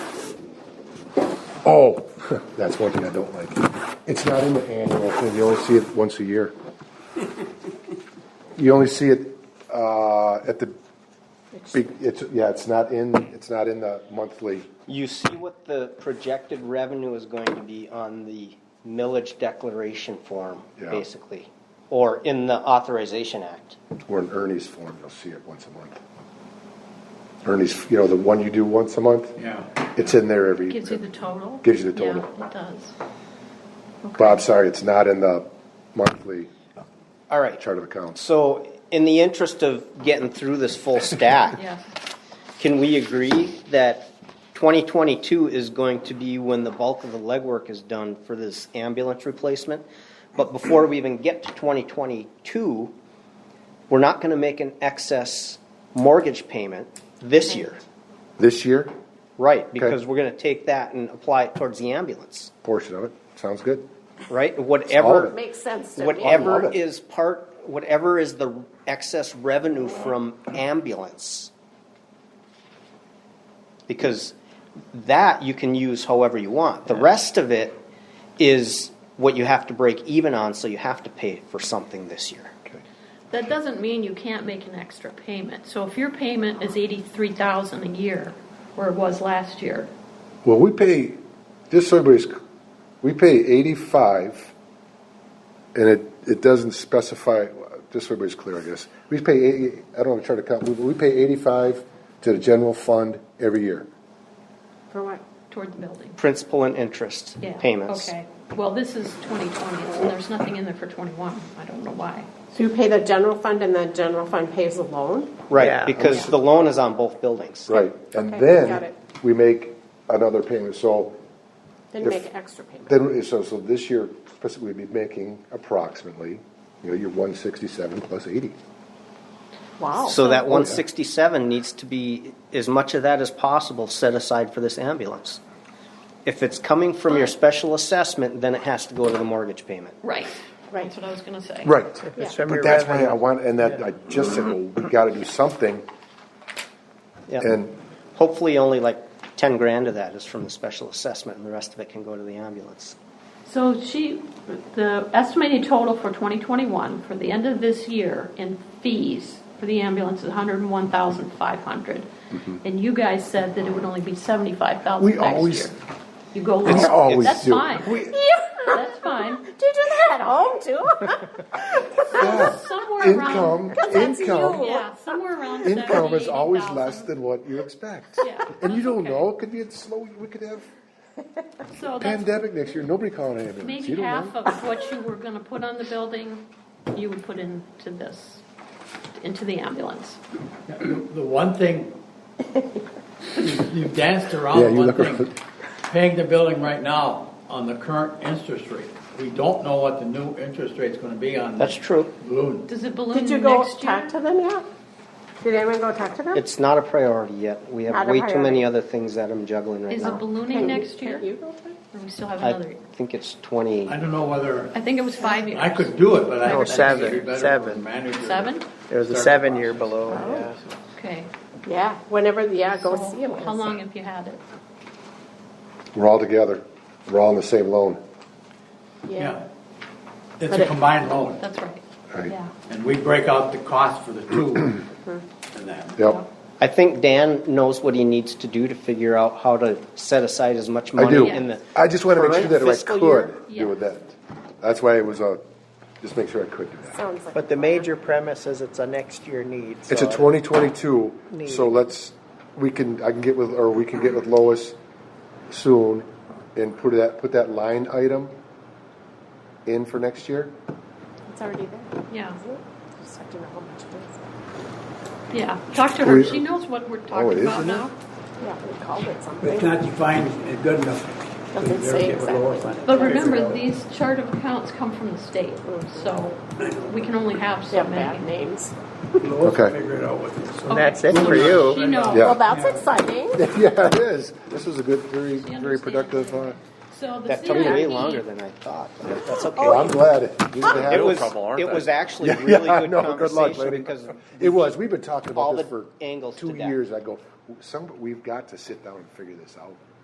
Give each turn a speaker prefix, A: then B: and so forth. A: Oh, that's one thing I don't like. It's not in the annual thing, you only see it once a year. You only see it, uh, at the, big. it's, yeah, it's not in, it's not in the monthly.
B: You see what the projected revenue is going to be on the millage declaration form,
A: Yeah.
B: basically, or in the authorization act.
A: Or in Ernie's form, you'll see it once a month. Ernie's, you know, the one you do once a month?
C: Yeah.
A: It's in there every,
D: Gives you the total?
A: Gives you the total.
D: Yeah, it does.
A: Bob, sorry, it's not in the monthly
B: All right,
A: chart of accounts.
B: so in the interest of getting through this full stack,
D: Yeah.
B: can we agree that 2022 is going to be when the bulk of the legwork is done for this ambulance replacement? But before we even get to 2022, we're not going to make an excess mortgage payment this year.
A: This year,
B: Right, because we're going to take that and apply it towards the ambulance,
A: portion of it, sounds good.
B: right? Whatever,
A: Solid.
E: Makes sense to me.
A: I
B: whatever
A: love it.
B: is part, whatever is the excess revenue from ambulance. Because that you can use however you want. The rest of it is what you have to break even on, so you have to pay for something this year.
D: That doesn't mean you can't make an extra payment. So if your payment is eighty-three thousand a year, where it was last year,
A: Well, we pay, just so everybody's, we pay eighty-five, and it, it doesn't specify, just so everybody's clear, I guess. We pay eighty, I don't have a chart of account, we, we pay eighty-five to the general fund every year.
E: For what?
D: toward the building.
B: Principal and interest
D: Yeah.
B: payments.
D: Okay. Well, this is twenty twenty, so there's nothing in there for twenty-one. I don't know why.
E: So you pay the general fund and the general fund pays the loan?
B: Right, because the loan is on both buildings.
A: Right. And
E: Okay, got
A: then,
E: it.
A: we make another payment, so
E: Then you
A: If-
E: make an extra payment.
A: Then, so, so this year, we'd be making approximately, you know, your one sixty-seven plus eighty.
E: Wow.
B: So that one sixty-seven needs to be, as much of that as possible, set aside for this ambulance. If it's coming from your special assessment, then it has to go to the mortgage payment.
D: Right.
E: Right.
D: That's what I was gonna say.
A: Right.
E: it's from
A: But that's why I want, and that, I just said, well, we gotta do something,
B: Yeah,
A: and,
B: hopefully only like ten grand of that is from the special assessment and the rest of it can go to the ambulance.
D: So she, the estimated total for 2021, for the end of this year, in fees for the ambulance is 101,500. And you guys said that it would only be 75,000
A: We
D: next
A: always-
D: year. You go
A: It's
D: low.
A: always
D: That's
A: do.
D: fine. That's fine.
E: Do you do that at home too?
A: yeah,
D: Somewhere around,
A: income,
E: that's
A: income,
E: you.
D: yeah, somewhere around
A: income is
D: 70,000,
A: always less than what you expect.
D: Yeah.
A: And you don't
D: Okay.
A: know, it could be a slow, we could have
D: So that's
A: pandemic next year, nobody calling an ambulance,
D: maybe
A: you don't
D: half
A: know.
D: of what you were gonna put on the building, you would put into this, into the ambulance.
C: The one thing, you- you danced
A: Yeah,
C: around
A: you
C: one
A: look
C: thing,
A: around.
C: paying the building right now on the current interest rate. We don't know what the new interest rate's gonna be on
B: That's
C: the
B: true.
C: balloon.
D: Does it balloon
E: Did you go
D: next year?
E: talk to them yet? Did anyone go talk to them?
B: It's not a priority yet. We have
E: Not a
B: way too many
E: priority.
B: other things that I'm juggling right
D: Is it
B: now.
D: ballooning next year?
E: Can't you go talk to them?
D: Or we still have
B: I
D: another?
B: think it's twenty,
C: I don't know whether,
D: I think it was five years.
C: I could do it, but I
F: No,
C: think it'd be
F: seven,
C: better for the
F: seven.
C: manager. to
D: Seven?
F: It was a
C: start the
F: seven-year
C: process.
F: below, yeah.
D: Okay.
E: Yeah, whenever, yeah, go
D: So
E: see them.
D: How long have you had it?
A: We're all together, we're all on the same loan,
E: Yeah.
C: Yeah. It's
E: But
C: a
E: it-
C: combined loan,
D: That's right.
A: right?
D: Yeah.
C: and we break out the cost for the two and that.
A: Yep,
B: I think Dan knows what he needs to do to figure out how to set aside as much
A: I
B: money
A: do.
B: in the.
A: I just wanna make sure that if I
B: Fiscal year.
A: could do with
D: Yeah.
A: that. That's why it was a, just make sure I could do that.
E: Sounds like.
F: But the major premise is it's a next year need.
A: It's a
F: so-
A: 2022,
F: Need.
A: so let's, we can, I can get with, or we can get with Lois soon and put that, put that line item in for next year.
E: It's already there.
D: Yeah.
E: Just have to know how much it
D: Yeah. Talk to her.
A: We-
D: She knows what we're
A: it
D: talking
A: is
D: about
A: in
D: now.
E: is. Yeah, we called it
G: It's
E: something.
G: not defined as good enough.
E: Doesn't
G: They're
E: say
G: getting lower funding.
E: exactly.
D: But remember, these chart of accounts come from the state, so we can only have
E: Yeah,
D: so
E: bad
D: many.
E: names.
G: Lois will
A: Okay.
G: Figure it out with this.
D: Okay.
F: That's it for
D: She
F: you.
D: knows.
A: Yeah.
E: Well, that's exciting.
A: Yeah, it is. This was a good, very,
D: She
A: very productive, uh,
D: understands. So the
B: That took way
D: CIP
B: longer than I thought, but that's okay.
A: well, I'm glad. you didn't have
B: It was,
H: trouble, aren't
B: it
H: they?
B: was actually a
A: Yeah,
B: really
A: I
B: good
A: know. Good luck,
B: conversation
A: lady.
B: because
A: It was, we've been talking
B: all
A: about this
B: the
A: for
B: angles to
A: two
B: that.
A: years. I go, some, we've got to sit down and figure this out.